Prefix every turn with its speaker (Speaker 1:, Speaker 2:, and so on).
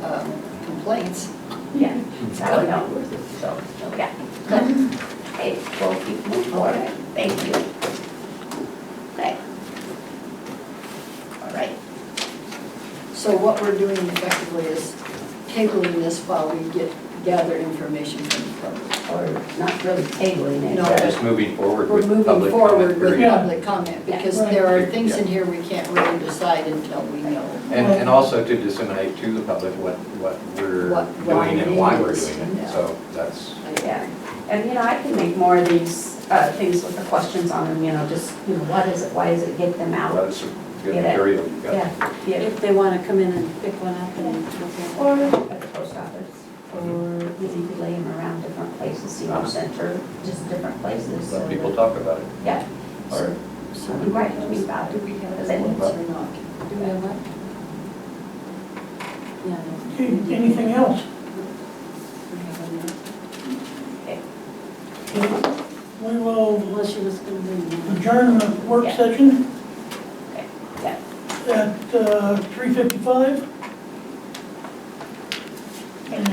Speaker 1: um, complaints.
Speaker 2: Yeah, so I don't know, so, yeah, good.
Speaker 3: Mm-hmm.
Speaker 2: Okay, we'll keep moving forward, thank you. Okay. All right,
Speaker 1: So what we're doing effectively is tabling this while we get, gather information from the public.
Speaker 2: or not really tabling it.
Speaker 1: No.
Speaker 4: Yeah, just moving forward
Speaker 1: We're
Speaker 4: with
Speaker 1: moving
Speaker 4: public comment
Speaker 1: forward with
Speaker 4: period.
Speaker 1: public comment, because there are things in here we can't really decide until we know
Speaker 4: And, and also to disseminate to the public what, what we're
Speaker 1: What- why
Speaker 4: doing and why
Speaker 1: it
Speaker 4: we're
Speaker 1: is,
Speaker 4: doing it,
Speaker 1: yeah.
Speaker 4: so that's,
Speaker 5: Yeah, and you know, I can make more of these uh, things with the questions on them, you know, just,
Speaker 2: You know, what is it, why is it, get them out?
Speaker 4: that's a good
Speaker 2: Get it.
Speaker 4: material you've got.
Speaker 2: Yeah, yeah,
Speaker 3: If they want to come in and pick one up and. okay.
Speaker 2: or at the post office, or you know, you could lay them around different places, senior center, just different places. so
Speaker 4: Uh-huh. Let people
Speaker 2: that-
Speaker 4: talk about it.
Speaker 2: Yeah,
Speaker 4: All right.
Speaker 1: So
Speaker 2: so you might have to be about
Speaker 1: Do
Speaker 2: it.
Speaker 1: we have a
Speaker 2: Does that
Speaker 1: or
Speaker 2: mean-
Speaker 1: not?
Speaker 3: Do we have what? Yeah. no.
Speaker 6: Okay, Anything else?
Speaker 3: We have a minute.
Speaker 6: We will
Speaker 3: Unless she was going to bring it.
Speaker 6: adjourn the work
Speaker 2: Yeah.
Speaker 6: session
Speaker 2: Yeah.
Speaker 6: at uh, 3:55.